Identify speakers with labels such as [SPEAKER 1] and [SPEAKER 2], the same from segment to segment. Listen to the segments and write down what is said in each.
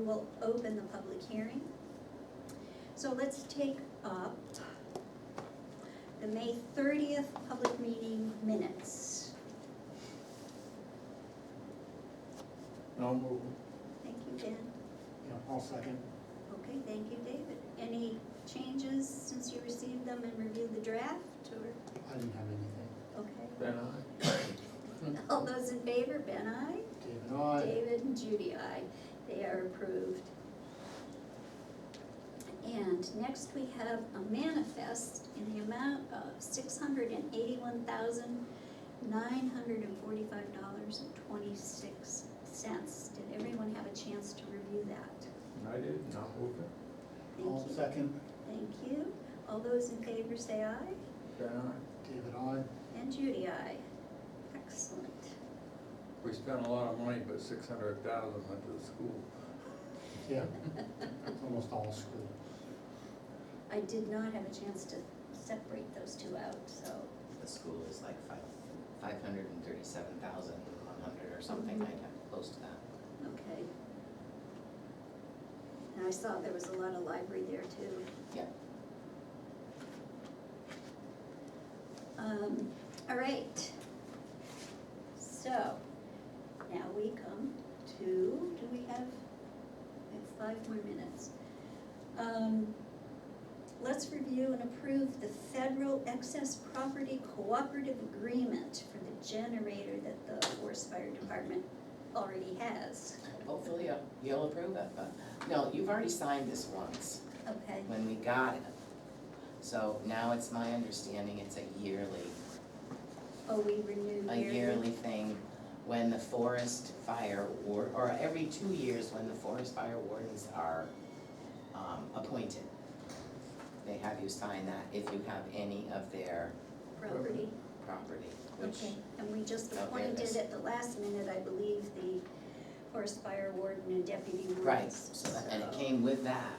[SPEAKER 1] will open the public hearing. So let's take up the May thirtieth public meeting minutes.
[SPEAKER 2] No move.
[SPEAKER 1] Thank you, Dan.
[SPEAKER 2] Yeah, I'll second.
[SPEAKER 1] Okay, thank you, David. Any changes since you received them and reviewed the draft, or,
[SPEAKER 2] I didn't have anything.
[SPEAKER 1] okay?
[SPEAKER 3] Then I,
[SPEAKER 1] All those in favor, Ben, aye?
[SPEAKER 2] David, aye.
[SPEAKER 1] David and Judy, aye. They are approved. And next we have a manifest in the amount of six hundred and eighty-one thousand, nine hundred and forty-five dollars and twenty-six cents. Did everyone have a chance to review that?
[SPEAKER 3] I did, and I'll move it.
[SPEAKER 1] Thank
[SPEAKER 2] I'll
[SPEAKER 1] you.
[SPEAKER 2] second.
[SPEAKER 1] Thank you. All those in favor say aye.
[SPEAKER 3] Then I,
[SPEAKER 2] David, aye.
[SPEAKER 1] And Judy, aye. Excellent.
[SPEAKER 3] we spent a lot of money, but six hundred thousand went to the school.
[SPEAKER 2] Yeah. It's almost all school.
[SPEAKER 1] I did not have a chance to separate those two out, so.
[SPEAKER 4] The school is like five, five hundred and thirty-seven thousand one hundred or something
[SPEAKER 1] Mhm.
[SPEAKER 4] like that, close to that.
[SPEAKER 1] Okay. And I saw there was a lot of library there too.
[SPEAKER 4] Yeah.
[SPEAKER 1] Um, all right. So, now we come to, do we have, we have five more minutes. Um, let's review and approve the federal excess property cooperative agreement for the generator that the Forest Fire Department already has.
[SPEAKER 4] Hopefully you'll- you'll approve it, but, no, you've already signed this once
[SPEAKER 1] Okay,
[SPEAKER 4] when we got it. So now it's my understanding it's a yearly,
[SPEAKER 1] oh, we renewed
[SPEAKER 4] a
[SPEAKER 1] yearly.
[SPEAKER 4] yearly thing when the forest fire war, or every two years when the forest fire wardens are, um, appointed. They have you sign that if you have any of their
[SPEAKER 1] Property,
[SPEAKER 4] property, which
[SPEAKER 1] okay, and we just
[SPEAKER 4] Oh, there it
[SPEAKER 1] appointed
[SPEAKER 4] is.
[SPEAKER 1] at the last minute, I believe, the forest fire warden and deputy wardens.
[SPEAKER 4] Right, so that, and it
[SPEAKER 1] so-
[SPEAKER 4] came with that,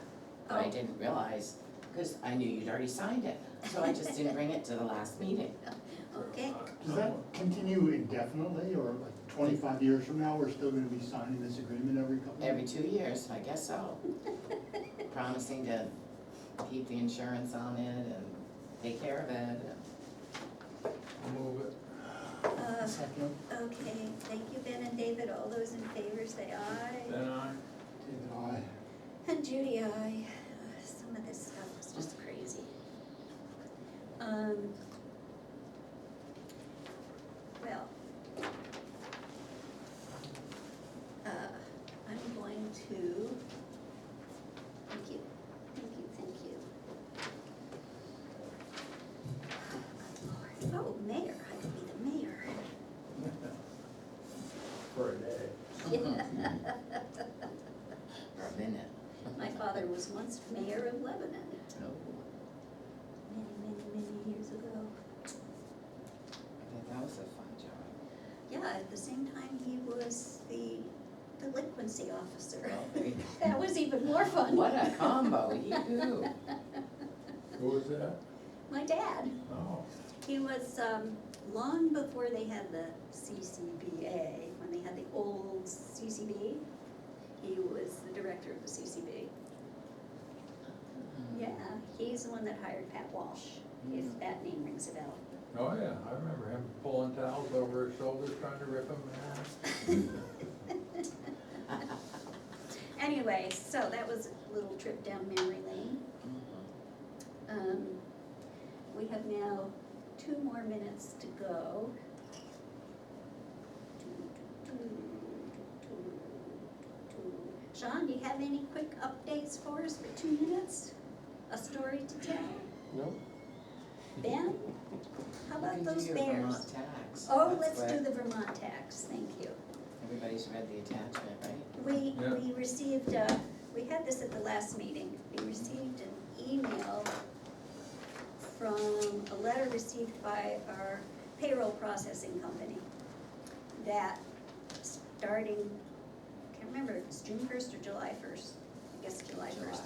[SPEAKER 4] but I
[SPEAKER 1] Oh.
[SPEAKER 4] didn't realize, cause I knew you'd already signed it, so I just didn't bring it to the last meeting.
[SPEAKER 1] Okay,
[SPEAKER 2] Does that continue indefinitely or like twenty-five years from now, we're still gonna be signing this agreement every couple of
[SPEAKER 4] Every two years, I guess so, promising to keep the insurance on it and take care of it, and
[SPEAKER 3] I'll move it.
[SPEAKER 1] uh,
[SPEAKER 2] Second.
[SPEAKER 1] okay, thank you, Ben and David, all those in favor say aye.
[SPEAKER 3] Then I,
[SPEAKER 2] David, aye.
[SPEAKER 1] And Judy, aye, Uh, some of this stuff was just crazy. Um. Well. Uh, I'm going to, thank you, thank you, thank you. Oh, Lord. Oh, mayor, I could be the mayor.
[SPEAKER 3] for a day.
[SPEAKER 4] for a minute. Oh,
[SPEAKER 1] My father was once mayor of Lebanon,
[SPEAKER 4] No,
[SPEAKER 1] many, many, many years ago.
[SPEAKER 4] but that was a fun job,
[SPEAKER 1] Yeah, at the same time, he was the delinquency officer.
[SPEAKER 4] well, there you
[SPEAKER 1] That was even more
[SPEAKER 4] go.
[SPEAKER 1] fun.
[SPEAKER 4] what a combo, you do,
[SPEAKER 3] Who was that?
[SPEAKER 1] My dad,
[SPEAKER 3] Oh,
[SPEAKER 1] he was, um, long before they had the CCBA, when they had the old CCB, he was the director of the CCB.
[SPEAKER 4] Mm-hmm.
[SPEAKER 1] Yeah, he's the one that hired Pat Walsh, if that name rings a bell.
[SPEAKER 3] oh yeah, I remember him pulling towels over his shoulders, trying to rip them out.
[SPEAKER 4] Mm-hmm.
[SPEAKER 1] Anyway, so that was a little trip down memory lane. Um, we have now two more minutes to go. Sean, do you have any quick updates for us for two minutes? A story to tell?
[SPEAKER 2] Nope.
[SPEAKER 1] Ben, how
[SPEAKER 4] You
[SPEAKER 1] about
[SPEAKER 4] can
[SPEAKER 1] those
[SPEAKER 4] do your Vermont
[SPEAKER 1] bears?
[SPEAKER 4] tax.
[SPEAKER 1] Oh,
[SPEAKER 4] That's
[SPEAKER 1] let's
[SPEAKER 4] what-
[SPEAKER 1] do the Vermont tax, thank you.
[SPEAKER 4] Everybody's read the attachment, right?
[SPEAKER 1] We,
[SPEAKER 3] Yeah.
[SPEAKER 1] we received, uh, we had this at the last meeting, we received an email from, a letter received by our payroll processing company that starting, can't remember, if it's June first or July first, I guess July first.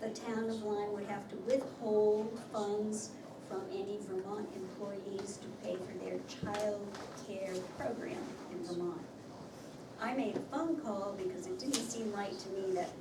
[SPEAKER 1] The town of Lyme would have to withhold funds from any Vermont employees to pay for their child care program in Vermont. I made a phone call because it didn't seem right to me that